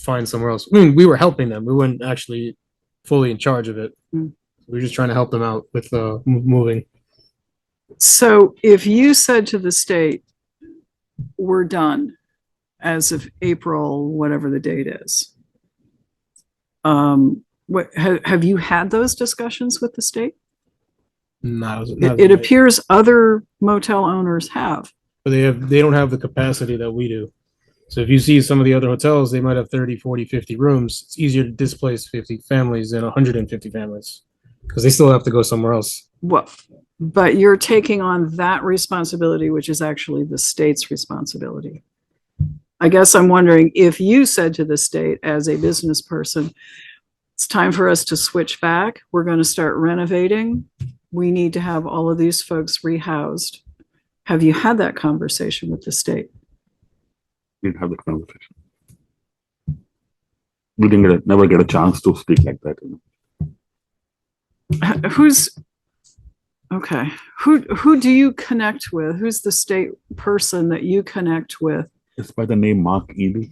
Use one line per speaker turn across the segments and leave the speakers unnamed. find somewhere else. I mean, we were helping them. We weren't actually fully in charge of it.
Hmm.
We were just trying to help them out with uh, mo- moving.
So if you said to the state, we're done as of April, whatever the date is. Um, what, have, have you had those discussions with the state?
Not, as- not
It,
as
it
much.
appears other motel owners have.
But they have they don't have the capacity that we do. So if you see some of the other hotels, they might have 30, 40, 50 rooms. It's easier to displace 50 families than 150 families because they still have to go somewhere else.
Well, but you're taking on that responsibility, which is actually the state's responsibility. I guess I'm wondering if you said to the state as a business person, it's time for us to switch back. We're going to start renovating. We need to have all of these folks rehoused. Have you had that conversation with the state?
We didn't have that conversation. We didn't get, a- never get a chance to speak like that. you know.
Who's, okay, who, who do you connect with? Who's the state person that you connect with?
It's by the name Mark Ely,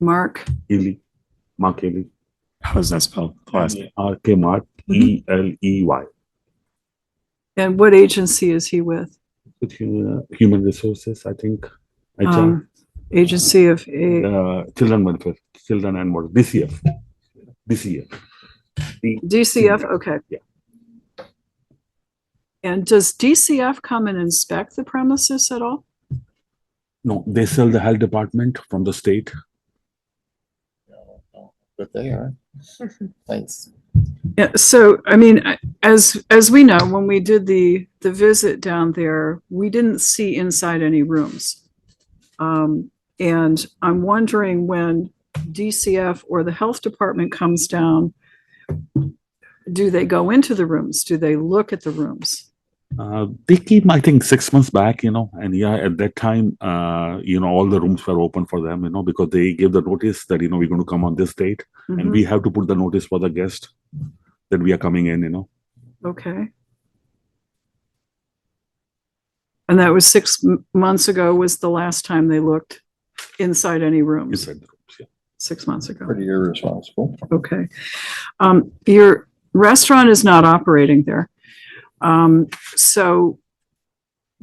Mark?
Ely, Mark Ely,
How is that spelled? Last name.
R K Mark E L E Y.
And what agency is he with?
With hu- uh, human resources, I think. HR,
Um, Agency of, A-
uh, children welfare, children and what, DCF, DCF.
DCF, okay.
Yeah.
And does DCF come and inspect the premises at all?
No, they sell the health department from the state.
But they are. Thanks.
Yeah, so, I mean, I- as, as we know, when we did the, the visit down there, we didn't see inside any rooms. Um, and I'm wondering when DCF or the health department comes down, do they go into the rooms? Do they look at the rooms?
Uh, they came, I think, six months back, you know, and yeah, at that time, uh, you know, all the rooms were open for them, you know, because they gave the notice that, you know, we're going to come on this date and
Mhm.
we have to put the notice for the guest that we are coming in, you know.
Okay. And that was six m- months ago was the last time they looked inside any rooms,
Inside the rooms, yeah.
six months ago.
Pretty irresponsible.
Okay. Um, your restaurant is not operating there. Um, so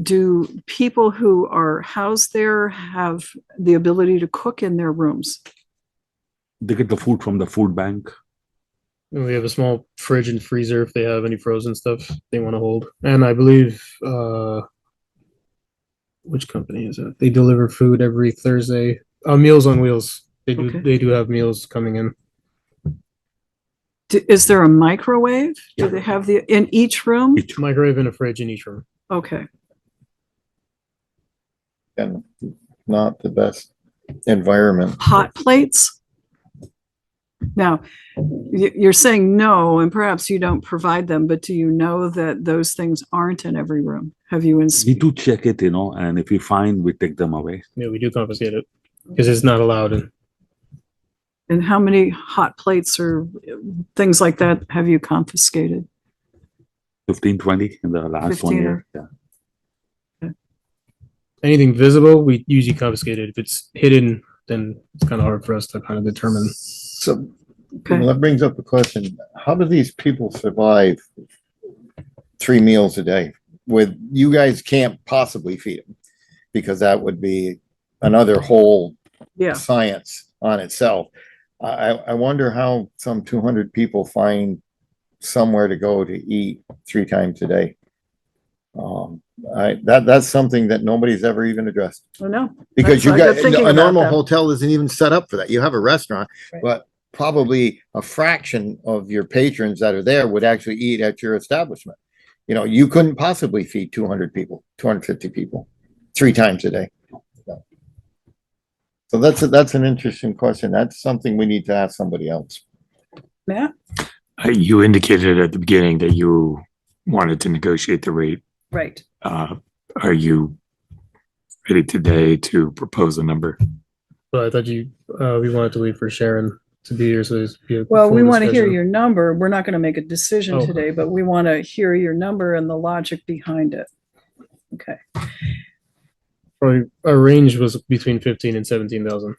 do people who are housed there have the ability to cook in their rooms?
They get the food from the food bank.
And we have a small fridge and freezer if they have any frozen stuff they want to hold. And I believe uh which company is it? They deliver food every Thursday. Uh, Meals on Wheels. They do
Okay.
they do have meals coming in.
Do- Is there a microwave? Do they have the, in each room?
Each room.
Microwave and a fridge in each room.
Okay.
And not the best environment.
hot plates? Now, y- you're saying no, and perhaps you don't provide them, but do you know that those things aren't in every room? Have you, ins-
We do check it, you know, and if we find, we take them away.
Yeah, we do confiscate it because it's not allowed in
and how many hot plates or uh, things like that have you confiscated?
15, 20 in the last
15
one year. Yeah.
anything visible, we usually confiscate it. If it's hidden, then it's kind of hard for us to kind of determine.
So
Okay,
that brings up the question, how do these people survive three meals a day with, you guys can't possibly feed them? Because that would be another whole
yeah,
science on itself. I, I I wonder how some two hundred people find somewhere to go to eat three times a day. Um, I, that, that's something that nobody's ever even addressed.
I know.
Because you
That's- I got
got,
thinking
a
about
normal
that.
hotel isn't even set up for that. You have a restaurant,
Right.
but probably a fraction of your patrons that are there would actually eat at your establishment. You know, you couldn't possibly feed two hundred people, two hundred fifty people, three times a day. So that's, a- that's an interesting question. That's something we need to ask somebody else.
Matt?
Uh, You indicated at the beginning that you wanted to negotiate the rate.
Right.
Uh, Are you ready today to propose a number?
But I thought you uh, we wanted to leave for Sharon to be here, so there's be a
Well,
full
we want to hear
discussion.
your number. We're not going to make a decision
Oh.
today, but we want to hear your number and the logic behind it. Okay,
Probably our range was between fifteen and seventeen thousand.